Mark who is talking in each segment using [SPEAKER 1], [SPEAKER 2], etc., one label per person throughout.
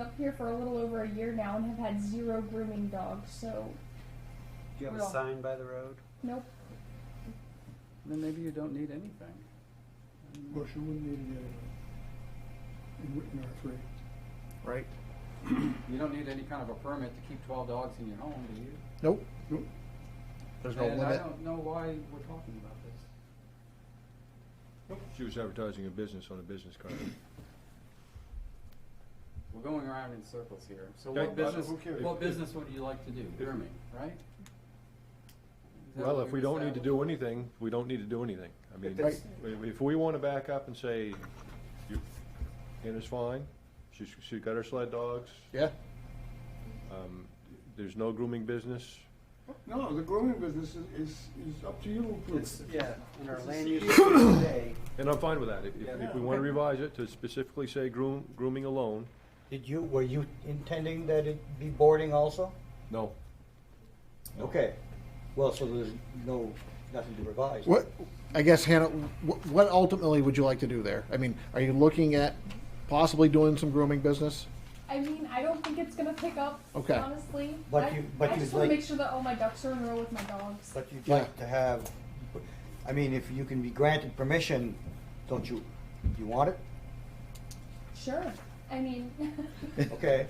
[SPEAKER 1] up here for a little over a year now and have had zero grooming dogs. So
[SPEAKER 2] Do you have a
[SPEAKER 1] Well-
[SPEAKER 2] sign by the road?
[SPEAKER 1] nope.
[SPEAKER 3] Then maybe you don't need anything.
[SPEAKER 4] Of course, you wouldn't need it anyway. uh, In Witten R three.
[SPEAKER 3] Right. You don't need any kind of a permit to keep twelve dogs in your home, do you?
[SPEAKER 5] Nope,
[SPEAKER 4] Nope.
[SPEAKER 5] there's no
[SPEAKER 3] And I
[SPEAKER 5] limit.
[SPEAKER 3] don't know why we're talking about this.
[SPEAKER 6] She was advertising a business on a business card.
[SPEAKER 3] We're going around in circles here. So
[SPEAKER 6] Okay,
[SPEAKER 3] what
[SPEAKER 6] but
[SPEAKER 3] business,
[SPEAKER 6] who cares?
[SPEAKER 3] what business would you like to do? Grooming, right? Is that
[SPEAKER 6] Well,
[SPEAKER 3] what
[SPEAKER 6] if
[SPEAKER 3] we
[SPEAKER 6] we don't need to
[SPEAKER 3] established?
[SPEAKER 6] do anything, we don't need to do anything. I mean,
[SPEAKER 5] that's-
[SPEAKER 6] if if we want to back up and say, you- Anna's fine, she's, she's got her sled dogs,
[SPEAKER 5] Yeah,
[SPEAKER 6] um, there's no grooming business,
[SPEAKER 4] No, the grooming business is, is, is up to you. to approve.
[SPEAKER 2] It's, yeah, in our land use today,
[SPEAKER 6] and I'm fine with that. If, if- if we want to
[SPEAKER 4] Yeah.
[SPEAKER 6] revise it to specifically say groom, grooming alone,
[SPEAKER 7] Did you, were you intending that it be boarding also?
[SPEAKER 6] no. No.
[SPEAKER 7] Okay, well, so there's no, nothing to revise.
[SPEAKER 5] what, I guess Hannah, wh- what ultimately would you like to do there? I mean, are you looking at possibly doing some grooming business?
[SPEAKER 1] I mean, I don't think it's gonna pick up.
[SPEAKER 5] Okay.
[SPEAKER 1] Honestly,
[SPEAKER 7] But
[SPEAKER 1] I,
[SPEAKER 7] you- but
[SPEAKER 1] I
[SPEAKER 7] you
[SPEAKER 1] just want to
[SPEAKER 7] like-
[SPEAKER 1] make sure that all my ducks are in a row with my dogs.
[SPEAKER 7] But you'd
[SPEAKER 5] Yeah.
[SPEAKER 7] like to have, I mean, if you can be granted permission, don't you, you want it?
[SPEAKER 1] Sure. I mean,
[SPEAKER 7] Okay,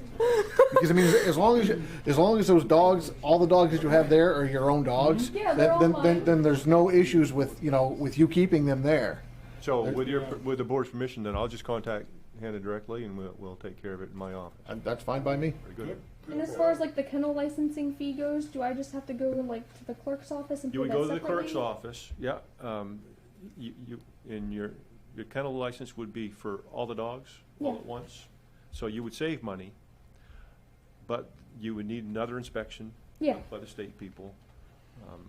[SPEAKER 5] Because I mean, as long as you, as long as those dogs, all the dogs that you have there are your own dogs,
[SPEAKER 1] Yeah, they're
[SPEAKER 5] then, then,
[SPEAKER 1] all mine.
[SPEAKER 5] then, then there's no issues with you know with you keeping them there.
[SPEAKER 6] So with your, with the board's permission, then I'll just contact Hannah directly and we'll, we'll take care of it in my office.
[SPEAKER 5] And that's fine by me.
[SPEAKER 6] Very good.
[SPEAKER 1] and as far as like the kennel licensing fee goes, do I just have to go like to the clerk's office and
[SPEAKER 6] You
[SPEAKER 1] pay
[SPEAKER 6] would
[SPEAKER 1] that
[SPEAKER 6] go to the
[SPEAKER 1] separately?
[SPEAKER 6] clerk's office, yeah, um, you, you, and your, your kennel license would be for all the dogs, all
[SPEAKER 1] Yeah.
[SPEAKER 6] at once. So you would save money, but you would need another inspection.
[SPEAKER 1] Yeah.
[SPEAKER 6] By the state people. Um,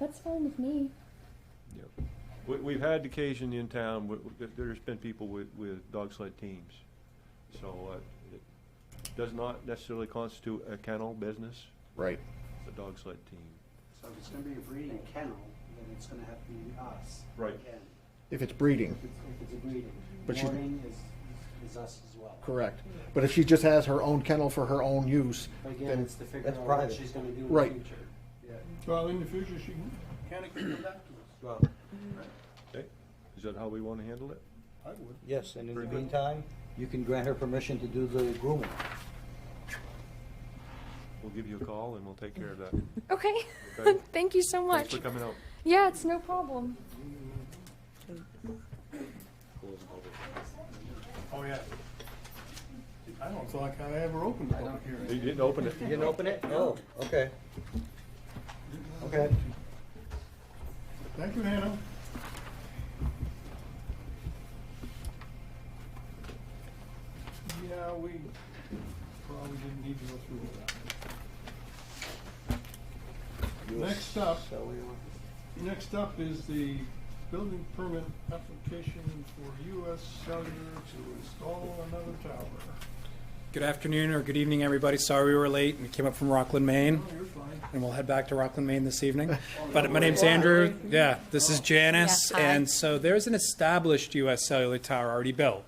[SPEAKER 1] That's fine with me.
[SPEAKER 6] yeah. We, we've had occasion in town, where- where there's been people with, with dog sled teams. So, uh, it does not necessarily constitute a kennel business,
[SPEAKER 5] Right.
[SPEAKER 6] a dog sled team.
[SPEAKER 2] so if it's gonna be a breeding kennel, then it's gonna have to be us.
[SPEAKER 6] Right.
[SPEAKER 2] again.
[SPEAKER 5] If it's breeding,
[SPEAKER 2] If it's, if it's a breeding,
[SPEAKER 5] But she's-
[SPEAKER 2] boarding is, is us as well.
[SPEAKER 5] correct. But if she just has her own kennel for her own use,
[SPEAKER 2] But
[SPEAKER 5] then-
[SPEAKER 2] again, it's to figure
[SPEAKER 7] That's
[SPEAKER 2] out what
[SPEAKER 7] private.
[SPEAKER 2] she's gonna do in the
[SPEAKER 5] Right.
[SPEAKER 2] future.
[SPEAKER 4] Well, in the future, she can, can it come back to us?
[SPEAKER 7] well,
[SPEAKER 6] Okay, is that how we wanna handle it?
[SPEAKER 4] I would.
[SPEAKER 7] yes, and in the
[SPEAKER 6] Very good.
[SPEAKER 7] meantime, you can grant her permission to do the grooming.
[SPEAKER 6] We'll give you a call and we'll take care of that.
[SPEAKER 1] Okay.
[SPEAKER 6] Okay.
[SPEAKER 1] Thank you so
[SPEAKER 6] Thanks
[SPEAKER 1] much.
[SPEAKER 6] for coming out.
[SPEAKER 1] Yeah, it's no problem.
[SPEAKER 4] Oh, yeah. I don't feel like I ever opened a public
[SPEAKER 6] You
[SPEAKER 4] hearing.
[SPEAKER 6] didn't open it.
[SPEAKER 7] You didn't open it? No. Oh, Okay. Okay.
[SPEAKER 4] Thank you, Hannah. Yeah, we probably didn't need to go through all that. Next up,
[SPEAKER 7] So we want-
[SPEAKER 4] next up is the building permit application for US Cellular to install another tower.
[SPEAKER 8] Good afternoon or good evening, everybody. Sorry we were late. We came up from Rockland, Maine,
[SPEAKER 4] Oh, you're fine.
[SPEAKER 8] and we'll head back to Rockland, Maine this evening. But my name's Andrew. Yeah, this is Janice.
[SPEAKER 9] Yeah, hi.
[SPEAKER 8] And so there's an established U.S. cellular tower already built.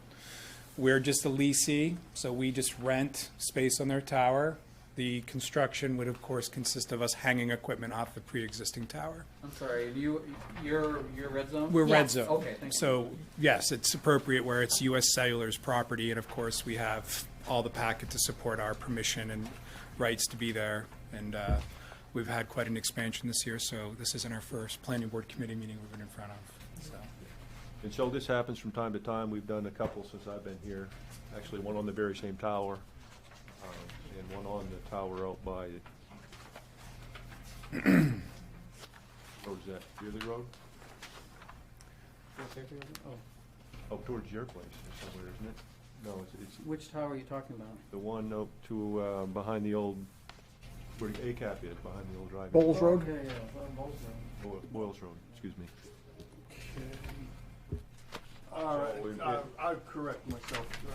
[SPEAKER 8] We're just a leasee, so we just rent space on their tower. The construction would, of course, consist of us hanging equipment off the pre-existing tower.
[SPEAKER 3] I'm sorry, you, you're, you're red zone?
[SPEAKER 8] We're red
[SPEAKER 9] Yes.
[SPEAKER 8] zone.
[SPEAKER 3] Okay, thank you.
[SPEAKER 8] So, yes, it's appropriate where it's U.S. Cellular's property, and of course, we have all the packet to support our permission and rights to be there. And uh, we've had quite an expansion this year, so this isn't our first planning board committee meeting we've been in front of, so.
[SPEAKER 6] And so this happens from time to time. We've done a couple since I've been here. Actually, one on the very same tower, uh, and one on the tower out by, road's that, Yearly Road? Up Oh, towards your place or somewhere, isn't it? No, it's, it's
[SPEAKER 3] Which tower are you talking about?
[SPEAKER 6] the one up to, uh, behind the old, where the ACAP is, behind the old drive.
[SPEAKER 5] Bowles Road.
[SPEAKER 3] Okay, yeah, well, both of them.
[SPEAKER 6] Boyles Road, excuse me.
[SPEAKER 4] Okay. Uh, All
[SPEAKER 6] So we-
[SPEAKER 4] right, I, I correct myself. Uh,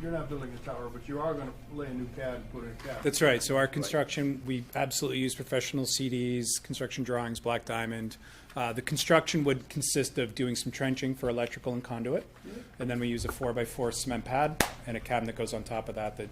[SPEAKER 4] You're not building a tower, but you are gonna lay a new pad and put in a cabin.
[SPEAKER 8] That's right. So our construction, we absolutely use professional CDs, construction drawings, black diamond. Uh, the construction would consist of doing some trenching for
[SPEAKER 3] Mm-hmm.
[SPEAKER 8] electrical and conduit. And then we use a four by four cement pad and a cabin that goes on top of that that